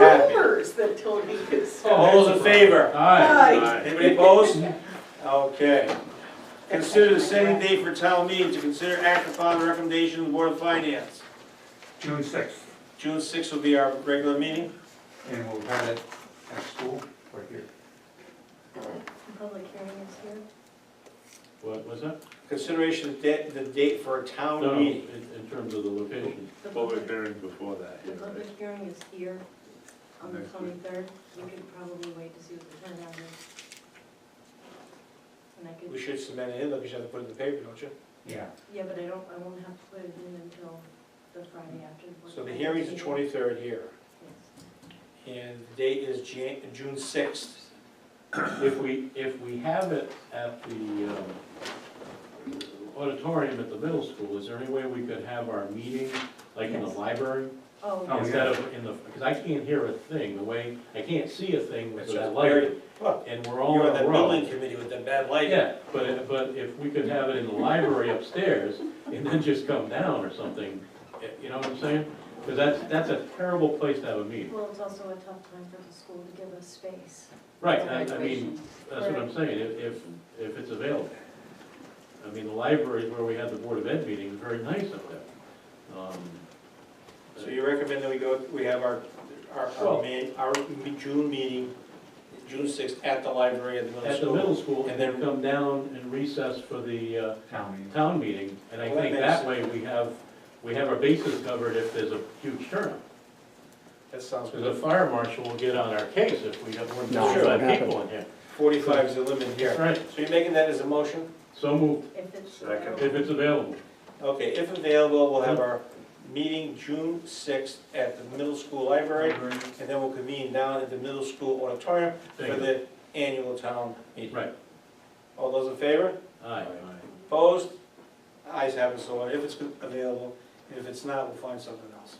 numbers that Tony is. Oh, All those in favor? Aye. Anybody opposed? Okay. Consider the setting date for town meeting to consider act upon the recommendation of the Board of Finance. June sixth, June sixth will be our regular meeting. and we'll have it at school, right here. Public hearing is here. What was that? Consideration of da- the date for a town No, meeting. in, in terms of the location. The Public public- hearing before that, The yeah, public right. hearing is here on the Next week. twenty-third. You could probably wait to see what the turnout is. And I We could, should submit it in, though, because you have to put it in the paper, don't you? Yeah. yeah, but I don't, I won't have to put it in until the Friday after. Board So the of hearing's the Finance meeting. twenty-third here, Yes. and the date is Jan, June sixth. If we, if we have it at the um, auditorium at the middle school, is there any way we could have our meeting, like in the Yes. library? Oh, Oh, Instead of in the, because I can't hear a thing, the way, I can't see a thing with It's just that lighting. Look, And we're all You're on in the a row. building committee with the bad lighting. Yeah, but, but if we could have it in the library upstairs and then just come down or something, eh, you know what I'm saying? Because that's, that's a terrible place to have a meeting. well, it's also a tough time for the school to give us space. Right, for I I mean, graduation. That's what I'm saying, if, if, if it's available. I mean, the library is where we had the Board of Ed meeting, was very nice up there. Um, So you recommend that we go, we have our, our, our Well- main, our me- June meeting, June sixth, at the library at the middle At the school. middle school, And and then- then come down and recess for the uh, Town meeting. town meeting, and I Well, that think makes that way we have, we have our bases covered if there's a huge turnout. That sounds Because the good. fire marshal will get on our case if we have more than No, it forty-five won't people in here. Forty-five is the limit here. Right, So you're making that as a motion? so moved, If it's. Second. if it's available. Okay, if available, we'll have Mm-hmm. our meeting June sixth at the middle school library, and then we'll convene down at the middle school auditorium for Thank you. the annual town meeting. Right, All those in favor? aye. Opposed? Eyes have it, so ordered. if it's available, and if it's not, we'll find something else.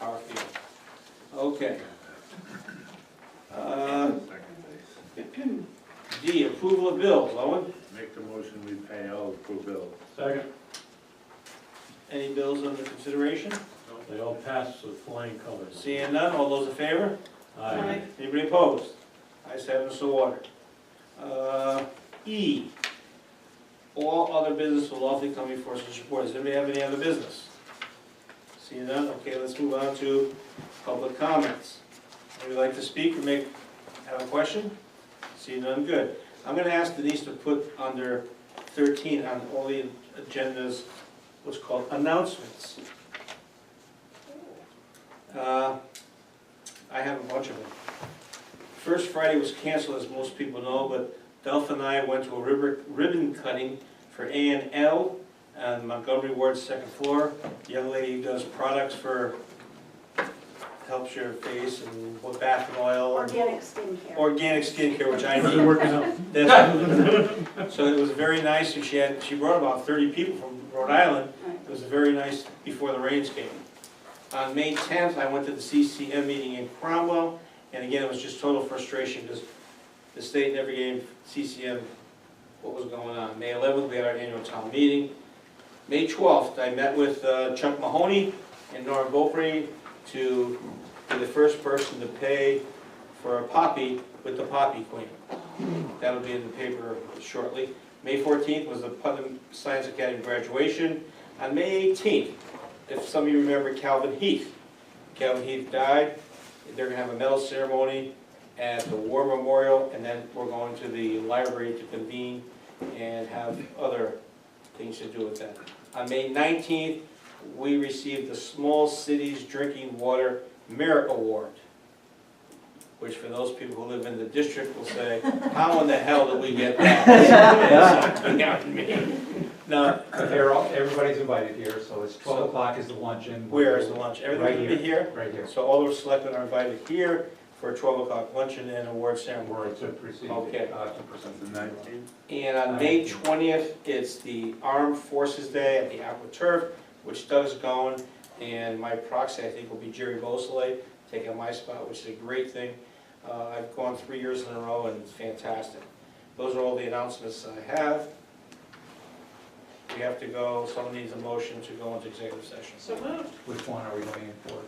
Our field. Okay. Uh, Second base. D, approval of bills, Owen, Make the motion, we pay all approved bills. Second, any bills under consideration? they all pass with flying colors. Seeing none, all those in favor? Aye. Anybody opposed? Ayes have it, so ordered. Uh, E, all other business will lawfully come before such board. Does anybody have any other business? Seeing none, okay, let's move on to public comments. Would you like to speak or make, have a question? Seeing none, good. I'm gonna ask Denise to put under thirteen on all the agendas, what's called announcements. Uh, I have a bunch of them. First Friday was canceled, as most people know, but Delph and I went to a ribbon, ribbon cutting for A and L on Montgomery Ward's second floor. The Young lady who does products for, helps your face and what bath oil. and Organic skincare. Organic skincare, which I How's it need. working out? That's- So it was very nice, and she had, she brought about thirty people from Rhode Island. It was very nice before the rains came. On May tenth, I went to the CCM meeting in Cromwell, and again, it was just total frustration, because the state never gave CCM what was going on. May eleventh, we had our annual town meeting. May twelfth, I met with uh, Chuck Mahoney and Nora Gopri to be the first person to pay for a poppy with the poppy queen. That'll be in the paper shortly. May 14th was the Putnam Science Academy graduation. On May 18th, if some of you remember Calvin Heath, Calvin Heath died. They're gonna have a medal ceremony at the War Memorial, and then we're going to the library to convene and have other things to do with that. On May 19th, we received the Small Cities Drinking Water Merit Award, which for those people who live in the district will say, how in the hell did we get that? You know what I mean? No, They're all, everybody's invited here, so it's twelve o'clock is the luncheon. where is the lunch? Everything will be here? Right here. So all the selectmen are invited here for a 12 o'clock luncheon and award ceremony. Where it's a proceed. Okay. Uh, to present the night. And on May 20th, it's the Armed Forces Day at the Aqua Turf, which Doug's going, and my proxy, I think, will be Jerry Bosley, taking my spot, which is a great thing. Uh, I've gone three years in a row, and it's fantastic. Those are all the announcements I have. We have to go, someone needs a motion to go into executive session. So moved. Which one are we going in for?